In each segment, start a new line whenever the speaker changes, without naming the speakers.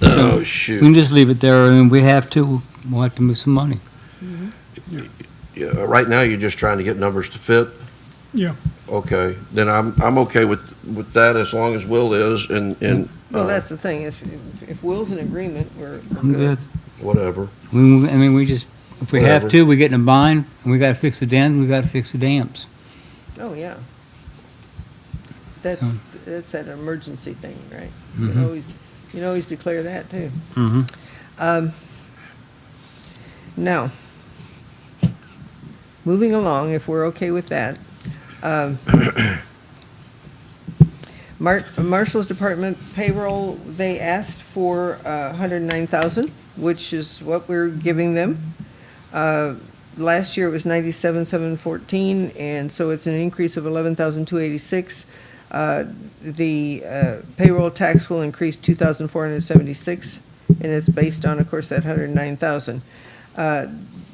So
Oh,
we
shoot.
can just leave it there, and we have to, we'll have to move some money.
Yeah, right now, you're just trying to get numbers to fit?
Yeah.
Okay, then I'm, I'm okay with, with that as long as Will is and, and
Well,
uh,
that's the thing, if, if- if Will's in agreement, we're we're
I'm good.
whatever.
We, we- I mean, we just, if we have
Whatever.
to, we get in a bind, and we gotta fix the dam, we gotta fix the dams.
Oh, yeah. That's, that's that emergency thing, right? You can
Mhm.
always, you can always declare that, too.
Mm-hmm.
Um, Now, moving along, if we're okay with that, um, Mar- Marshall's Department payroll, they asked for uh, 109,000, which is what we're giving them. Uh, Last year it was 97,714, and so it's an increase of 11,286. Uh, The uh, payroll tax will increase 2,476, and it's based on, of course, that 109,000. Uh,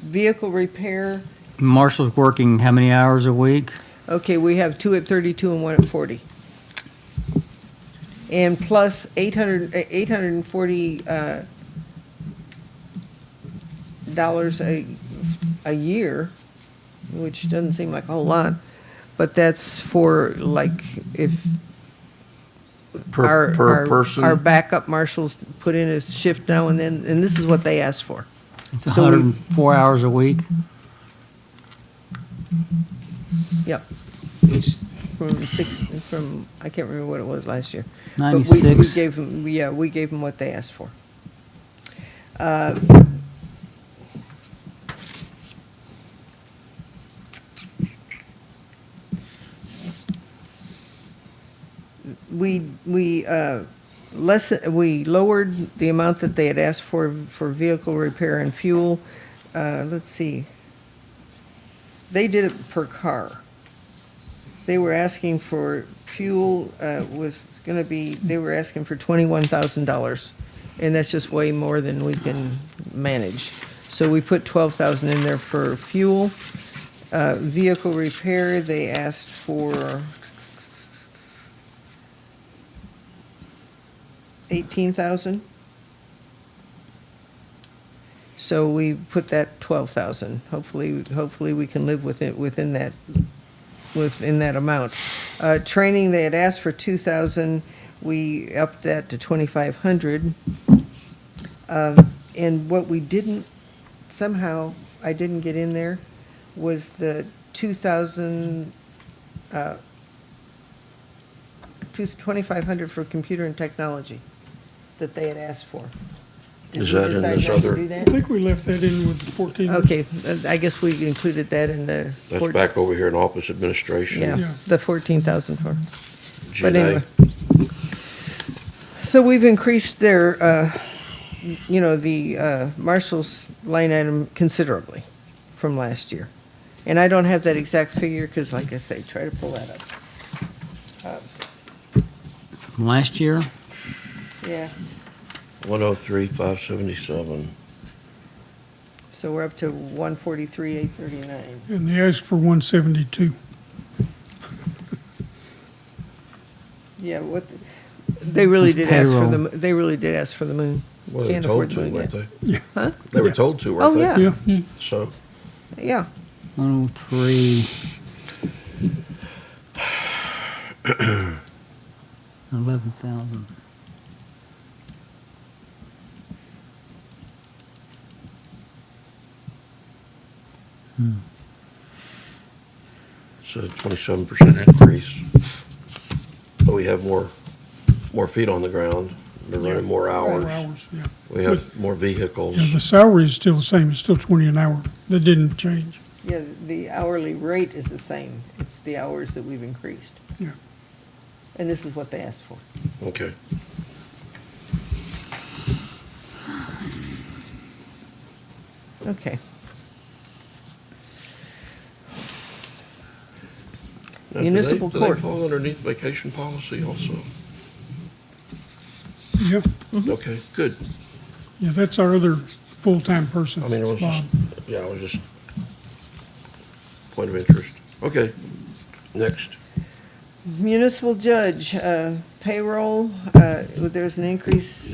Vehicle repair,
Marshall's working how many hours a week?
okay, we have two at 32 and one at 40. And plus 800, eh, 840 uh, dollars a, a year, which doesn't seem like a whole lot, but that's for like if
Per,
our,
per
our our
person,
backup marshals put in a shift now and then, and this is what they asked for.
It's a
So we-
hundred and four hours a week.
Yep. From six, from, I can't remember what it was last year. But we- We
96.
gave them, yeah, we gave them what they asked for. Uh, We, we, uh, less, we lowered the amount that they had asked for, for vehicle repair and fuel. Uh, Let's see. They did it per car they were asking for, fuel uh, was going to be, they were asking for $21,000, and that's just way more than we can manage. So we put 12,000 in there for fuel. Uh, Vehicle repair, they asked for 18,000. So we put that 12,000. Hopefully, hopefully we can live within, within that within that amount. Uh, Training, they had asked for 2,000, we upped that to 2,500. Um, And what we didn't, somehow, I didn't get in there, was the 2,000, uh, two- 2,500 for computer and technology that they had asked for. Did
Is
we
that in
decide
this
not to
other-
do
I
that?
think we left that in with the 14.
Okay, uh, I guess we included that in the.
that's
four-
back over here in office administration,
Yeah.
Yeah, the 14,000 for. But
Janae.
anyway. So we've increased their, uh, you know, the uh, marshal's line item considerably from last year. And I don't have that exact figure because like I say, try to pull that up.
From last year,
Yeah,
One oh three, five seventy-seven.
so we're up to 143, 839.
And they asked for 172.
Yeah, what, they really
It's
did ask for the,
payroll.
mo- they really did ask for the moon.
Well, they were
Can't
told
afford
to,
the moon
weren't
yet.
they?
Yeah.
Huh?
They were
Yeah.
told to,
Oh,
weren't they?
yeah,
Yeah,
So,
yeah.
103. Eleven thousand.
so twenty-seven percent increase. But we have more, more feet on the ground, we're running more
Four
hours,
hours, yeah.
we have more vehicles.
Yeah, the salary is still the same, it's still 20 an hour. That didn't change.
Yeah, the hourly rate is the same. It's the hours that we've increased.
Yeah.
And this is what they asked for.
Okay.
Okay.
Now, do they-
Municipal
Do
court.
they fall underneath vacation policy also?
Yeah,
Okay, good.
yeah, that's our other full-time person.
I mean, it was just,
Bob.
yeah, it was just point of interest. Okay, next.
Municipal judge, uh, payroll, uh, there's an increase